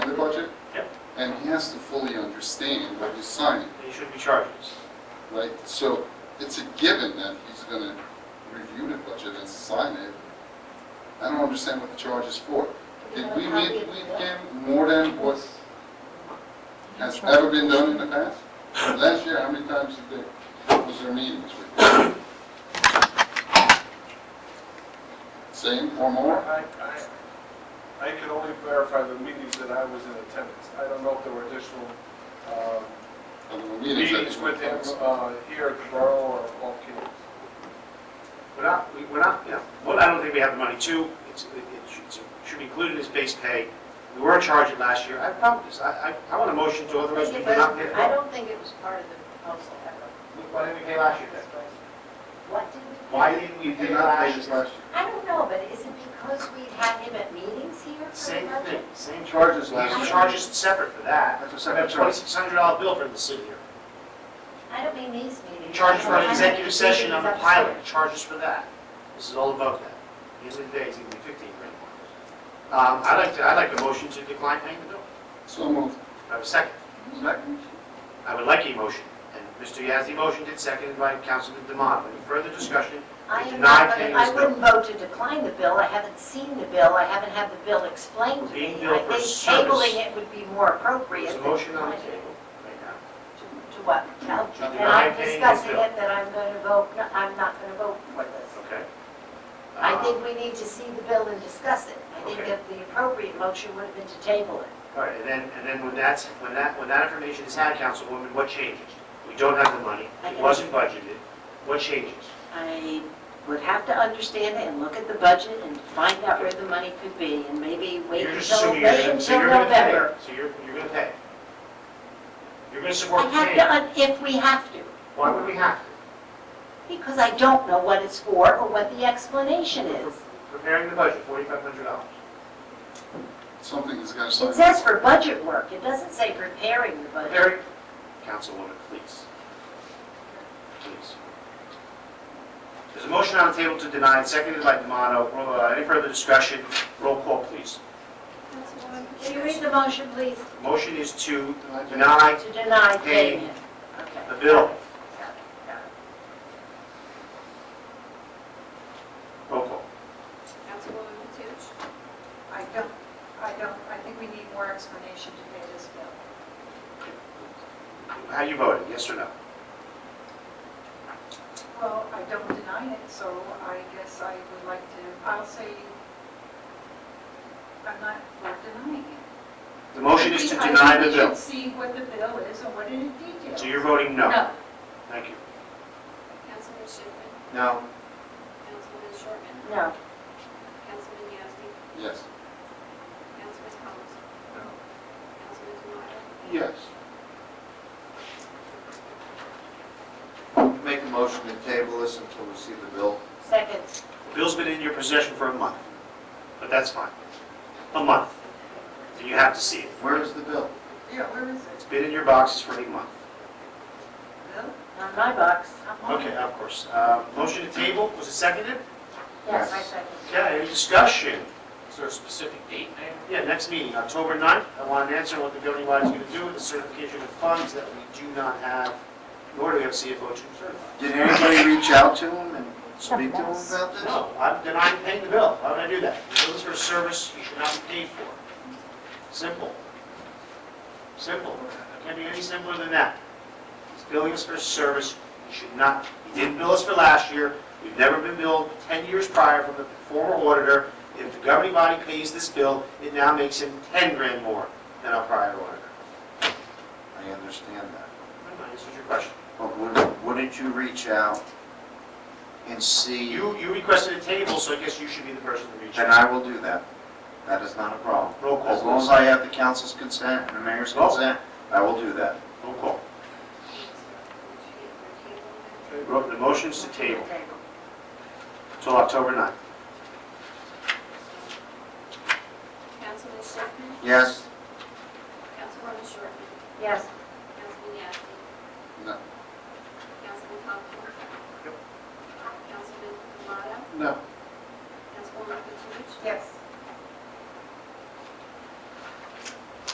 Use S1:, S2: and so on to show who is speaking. S1: and he has to fully understand what he's signing,
S2: then you shouldn't be charging us.
S1: right? So it's a given that he's gonna review the budget and sign it. I don't understand what the charge is for. Did we make, we give more than what has ever been done in the past? Last year, how many times did they, was there meetings with them? Same or more?
S3: I, I, I can only verify the meetings that I was in attendance. I don't know if there were additional um,
S1: I mean, the meetings that
S3: meetings
S1: they
S3: with him
S1: were-
S3: uh, here at the borough or off campus.
S2: We're not, we- we're not, you know, one, I don't think we have the money. Two, it's, it it should- it should be included in his base pay. We were charging last year. I have a problem with this. I, I, I want a motion to authorize people to not pay the
S4: I
S2: bill.
S4: don't think it was part of the proposal ever.
S2: Why didn't we pay last year then?
S4: What did we?
S2: Why didn't we
S1: Did
S2: pay
S1: not pay
S2: last
S1: this
S2: year?
S1: last year.
S4: I don't know, but is it because we had him at meetings here for the
S2: Same thing,
S4: budget?
S2: same charge.
S1: Charges last year.
S2: These charges separate for that.
S1: That's a
S2: We have
S1: separate
S2: a
S1: charge.
S2: twenty-six hundred dollar bill for the city here.
S4: I don't mean these meetings.
S2: Charges for an
S4: I mean
S2: executive
S4: meetings
S2: session on the
S4: upstairs.
S2: pilot, charges for that. This is all above that. At the end of the day, it's gonna be fifteen grand. Um, I'd like to, I'd like a motion to decline paying the bill.
S1: So moved.
S2: I have a second.
S1: Second.
S2: I would like a motion. And Mr. Yazdi motioned it, seconded by Councilman Demoto. Any further discussion?
S4: I
S2: Denied
S4: am not,
S2: paying
S4: gonna-
S2: this
S4: I
S2: bill.
S4: wouldn't vote to decline the bill, I haven't seen the bill, I haven't had the bill explained to
S2: Being
S4: me.
S2: billed
S4: I
S2: for
S4: think
S2: service.
S4: tabling it would be more appropriate.
S2: There's a
S4: than
S2: motion on the
S4: declining it.
S2: table right now.
S4: To to what? No.
S2: To
S4: And
S2: deny
S4: I'm
S2: paying this
S4: discussing
S2: bill.
S4: it, that I'm going to vote, no, I'm not going to vote for this.
S2: Okay.
S4: I
S2: Um,
S4: think we need to see the bill and discuss it. I think
S2: Okay.
S4: that the appropriate motion would have been to table it.
S2: All right, and then, and then when that's, when that, when that information is had, Councilwoman, what changes? We don't have the money, it wasn't budgeted, what changes?
S4: I would have to understand it and look at the budget and find out where the money could be, and maybe wait
S2: You're just
S4: until,
S2: assuming you're
S4: wait
S2: gonna, so
S4: until
S2: you're gonna
S4: November.
S2: pay, so you're, you're gonna pay. You're gonna
S4: I
S2: support the
S4: have
S2: change.
S4: to, un- if we have to,
S2: Why would we have to?
S4: because I don't know what it's for or what the explanation is.
S2: Preparing the budget, forty-five hundred dollars.
S1: Something is gonna
S4: It
S1: sign.
S4: says for budget work, it doesn't say preparing the budget.
S2: Preparing, Councilwoman, please. Please. There's a motion on the table to deny, seconded by Demoto. Roll- uh, Any further discussion? Roll call, please.
S4: Can you read the motion, please,
S2: The Motion is to deny
S4: to deny
S2: Paying.
S4: payment? Okay.
S2: the bill.
S4: Got it, got it.
S2: Roll call.
S5: Councilwoman Toots? I don't, I don't, I think we need more explanation to pay this bill.
S2: How you voting, yes or no?
S5: Well, I don't deny it, so I guess I would like to, I'll say, I'm not for denying it.
S2: The motion is to
S5: I think
S2: deny the
S5: We should
S2: bill.
S5: see what the bill is and what it details.
S2: So you're voting no? Thank you.
S6: Councilman Schiffman,
S2: No.
S6: Councilman Shortman,
S4: No,
S6: Councilman Yasi,
S1: Yes.
S6: Councilman Thomas.
S3: No.
S6: Councilman Demotta,
S1: Yes.
S7: Make a motion to table this until we see the bill.
S4: second.
S2: The bill's been in your possession for a month, but that's fine. A month. So you have to see it.
S7: Where is the bill?
S5: Yeah, where is it?
S2: It's been in your boxes for a month.
S5: Bill?
S4: On my box.
S2: Okay, of course. Uh, Motion to table, was it seconded?
S4: Yes, I second.
S2: Yeah, any discussion?
S8: Is there a specific date named?
S2: Yeah, next meeting, October 9th. I want an answer on what the governing body is going to do with the certification of funds that we do not have, nor do we have CFO to certify.
S7: Did anybody reach out to him and speak to him about this?
S2: No, I'm denying paying the bill. Why would I do that? The bill is for a service you should not be paid for. Simple. Simple. It Can't be any simpler than that. It's billing us for a service you should not, you didn't bill us for last year. We've never been billed 10 years prior from the former auditor. If the governing body pays this bill, it now makes him 10 grand more than our prior auditor.
S7: I understand that.
S2: I answered your question.
S7: But would- wouldn't you reach out and see?
S2: You, you requested a table, so I guess you should be the person to reach
S7: And
S2: out.
S7: I will do that. That is not a problem.
S2: Roll call,
S7: As long as
S2: please.
S7: I have the council's consent and the mayor's
S2: Roll.
S7: consent, I will do that.
S2: Roll call.
S6: Councilman Tableman,
S2: Ro- The motion's to table till October 9th.
S6: Councilman Schiffman,
S7: Yes?
S6: Councilwoman Shortman,
S4: Yes,
S6: Councilman Yasi,
S1: No.
S6: Councilman Thomas. Councilman Demotta,
S1: No.
S6: Councilwoman Toots,
S5: Yes.